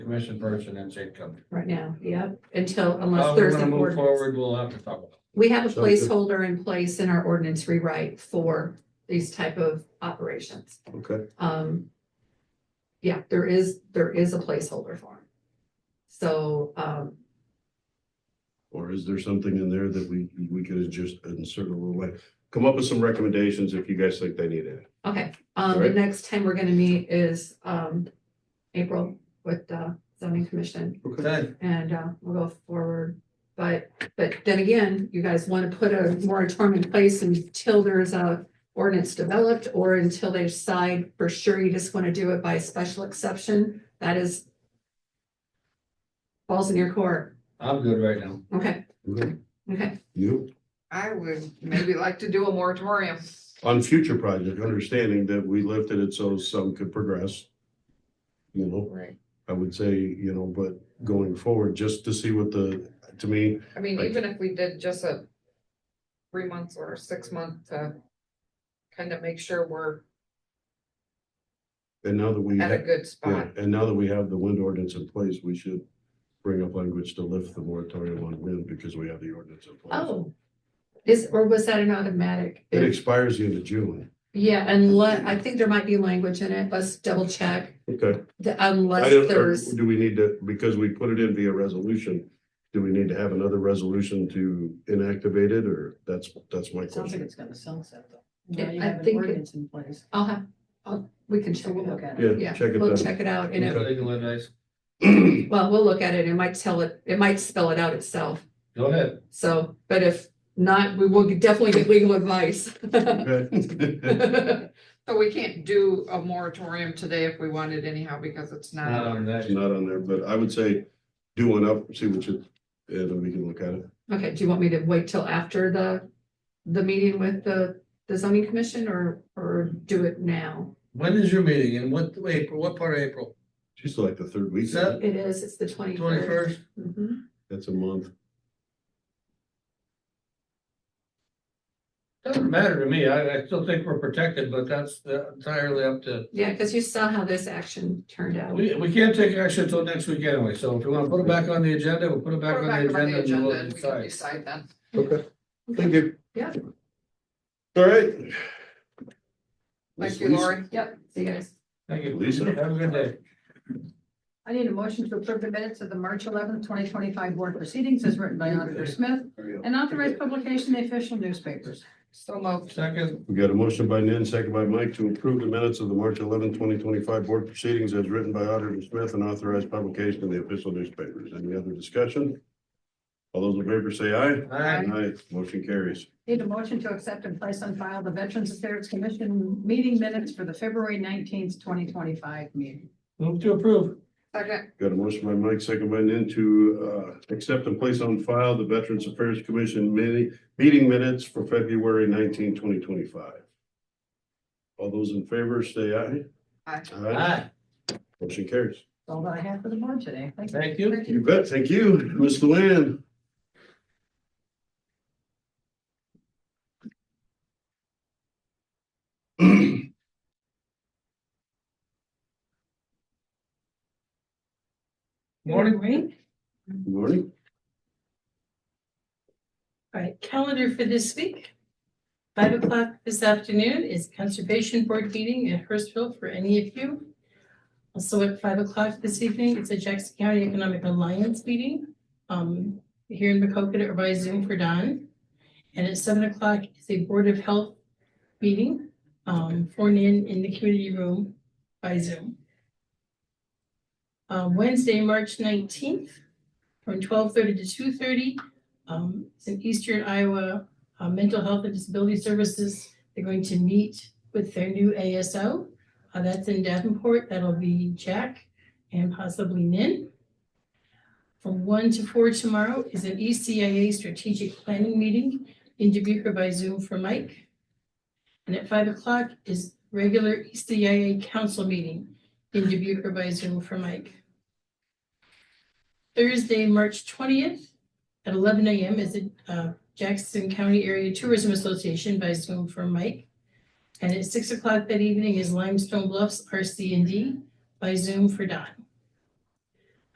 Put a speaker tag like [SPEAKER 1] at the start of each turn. [SPEAKER 1] Commission person and Jacob.
[SPEAKER 2] right now, yep, until
[SPEAKER 1] How
[SPEAKER 2] unless
[SPEAKER 1] we're
[SPEAKER 2] there's
[SPEAKER 1] gonna
[SPEAKER 2] an
[SPEAKER 1] move
[SPEAKER 2] ordinance.
[SPEAKER 1] forward, we'll have to talk about.
[SPEAKER 2] We have a
[SPEAKER 3] So good.
[SPEAKER 2] placeholder in place in our ordinance rewrite for these type of operations.
[SPEAKER 3] Okay,
[SPEAKER 2] Um, yeah, there is, there is a placeholder for them. So, um,
[SPEAKER 3] or is there something in there that we, we could just insert a little way? Come up with some recommendations if you guys think they need it.
[SPEAKER 2] okay, um, the
[SPEAKER 3] Alright.
[SPEAKER 2] next time we're gonna meet is, um, April with the zoning commission.
[SPEAKER 1] Okay,
[SPEAKER 2] and uh, we'll go forward. But, but then again, you guys want to put a moratorium in place until there's a ordinance developed or until they decide for sure you just want to do it by special exception, that is falls in your court.
[SPEAKER 1] I'm good right now.
[SPEAKER 2] Okay,
[SPEAKER 3] Okay.
[SPEAKER 2] okay.
[SPEAKER 3] You,
[SPEAKER 4] I would maybe like to do a moratorium.
[SPEAKER 3] on future project, understanding that we lifted it so some could progress. You know,
[SPEAKER 4] Right.
[SPEAKER 3] I would say, you know, but going forward, just to see what the, to me,
[SPEAKER 4] I mean,
[SPEAKER 3] Right.
[SPEAKER 4] even if we did just a three months or six month to kind of make sure we're
[SPEAKER 3] and now that we.
[SPEAKER 4] at a
[SPEAKER 3] have-
[SPEAKER 4] good
[SPEAKER 3] Yeah,
[SPEAKER 4] spot.
[SPEAKER 3] and now that we have the wind ordinance in place, we should bring up language to lift the moratorium on wind because we have the ordinance in place.
[SPEAKER 2] Oh, is, or was that an automatic?
[SPEAKER 3] It expires the end of June.
[SPEAKER 2] Yeah, unless, I think there might be language in it. Let's double check.
[SPEAKER 3] Okay.
[SPEAKER 2] The-
[SPEAKER 3] I
[SPEAKER 2] Unless
[SPEAKER 3] don't, or
[SPEAKER 2] there's,
[SPEAKER 3] do we need to, because we put it in via resolution, do we need to have another resolution to inactivate it or that's, that's my
[SPEAKER 5] It sounds
[SPEAKER 3] question.
[SPEAKER 5] like it's gonna sunset though.
[SPEAKER 2] Yeah,
[SPEAKER 5] Now you
[SPEAKER 2] I
[SPEAKER 5] have an
[SPEAKER 2] think it-
[SPEAKER 5] ordinance in place.
[SPEAKER 2] I'll have, I'll, we can check
[SPEAKER 5] We'll
[SPEAKER 2] it
[SPEAKER 5] look
[SPEAKER 2] out.
[SPEAKER 5] at it.
[SPEAKER 3] Yeah,
[SPEAKER 2] Yeah,
[SPEAKER 3] check it
[SPEAKER 2] we'll
[SPEAKER 3] out.
[SPEAKER 2] check it out and if
[SPEAKER 1] Legal advice.
[SPEAKER 2] Well, we'll look at it. It might tell it, it might spell it out itself.
[SPEAKER 1] Go ahead.
[SPEAKER 2] So, but if not, we will definitely get legal advice.
[SPEAKER 3] Okay.
[SPEAKER 2] Right,
[SPEAKER 4] So we can't do a moratorium today if we wanted anyhow, because it's
[SPEAKER 1] Not
[SPEAKER 4] not.
[SPEAKER 1] on
[SPEAKER 3] It's
[SPEAKER 1] that.
[SPEAKER 3] not on there, but I would say do one up, see what you, and then we can look at it.
[SPEAKER 2] okay, do you want me to wait till after the, the meeting with the, the zoning commission or, or do it now?
[SPEAKER 1] When is your meeting and what, April, what part of April?
[SPEAKER 3] She's like the third week.
[SPEAKER 1] Seth?
[SPEAKER 2] It is, it's the Mm-hmm. twenty
[SPEAKER 1] Twenty-first?
[SPEAKER 3] That's a month.
[SPEAKER 1] Doesn't matter to me. I, I still think we're protected, but that's entirely up to.
[SPEAKER 2] Yeah, because you saw how this action turned out.
[SPEAKER 1] We, we can't take action until next week anyway, so if you wanna put it back on the agenda, we'll put it back
[SPEAKER 4] Put
[SPEAKER 1] on
[SPEAKER 4] it
[SPEAKER 1] the
[SPEAKER 4] back on the
[SPEAKER 1] agenda and
[SPEAKER 4] agenda
[SPEAKER 1] we'll
[SPEAKER 4] and we can
[SPEAKER 1] decide.
[SPEAKER 4] decide then.
[SPEAKER 3] Okay,
[SPEAKER 2] Okay.
[SPEAKER 3] thank you.
[SPEAKER 2] Yeah.
[SPEAKER 3] All right.
[SPEAKER 4] Thank you, Lori.
[SPEAKER 5] Yep,
[SPEAKER 2] See you guys.
[SPEAKER 1] Thank you.
[SPEAKER 3] Lisa?
[SPEAKER 1] Have a good day.
[SPEAKER 5] I need a motion to approve the minutes of the March eleventh, twenty twenty-five board proceedings as written by Auditor Smith and authorized publication in the official newspapers.
[SPEAKER 4] So moved.
[SPEAKER 1] Second,
[SPEAKER 3] We got a motion by Nan, second by Mike to approve the minutes of the March 11, 2025 board proceedings as written by Auditor Smith and authorized publication in the official newspapers. Any other discussion? All those in favor say aye.
[SPEAKER 1] aye,
[SPEAKER 3] Aye, motion carries.
[SPEAKER 5] Need a motion to accept and place on file the Veterans Affairs Commission meeting minutes for the February nineteenth, twenty twenty-five meeting.
[SPEAKER 1] move to approve.
[SPEAKER 4] Second,
[SPEAKER 3] Got a motion by Mike, second by Nan to uh accept and place on file the Veterans Affairs Commission mini- meeting minutes for February 19, 2025. All those in favor say aye.
[SPEAKER 4] Aye.
[SPEAKER 3] Aye,
[SPEAKER 1] Aye,
[SPEAKER 3] motion carries.
[SPEAKER 5] That's all that I have for the board today. Thank you.
[SPEAKER 1] thank you.
[SPEAKER 3] You bet, thank you, Ms. Luann.
[SPEAKER 1] Morning.
[SPEAKER 3] Good Morning.
[SPEAKER 6] All right, calendar for this week. Five o'clock this afternoon is Conservation Board meeting at Hurstville for any of you. Also at five o'clock this evening, it's a Jackson County Economic Alliance meeting, um, here in Macocota or by Zoom for Don. And at seven o'clock is a Board of Health meeting, um, for Nan in the community room by Zoom. Uh, Wednesday, March nineteenth, from twelve thirty to two thirty, um, it's in Eastern Iowa, uh, Mental Health and Disability Services. They're going to meet with their new ASO. Uh, that's in Davenport. That'll be Jack and possibly Nin. From one to four tomorrow is an E ECIA strategic planning meeting in Dubuque by Zoom for Mike. And at five o'clock is regular E ECIA council meeting in Dubuque by Zoom for Mike. Thursday, March twentieth, at eleven AM is the uh, Jackson County Area Tourism Association by Zoom for Mike. And at six o'clock that evening is Limestone Bluffs RC and D by Zoom for Don.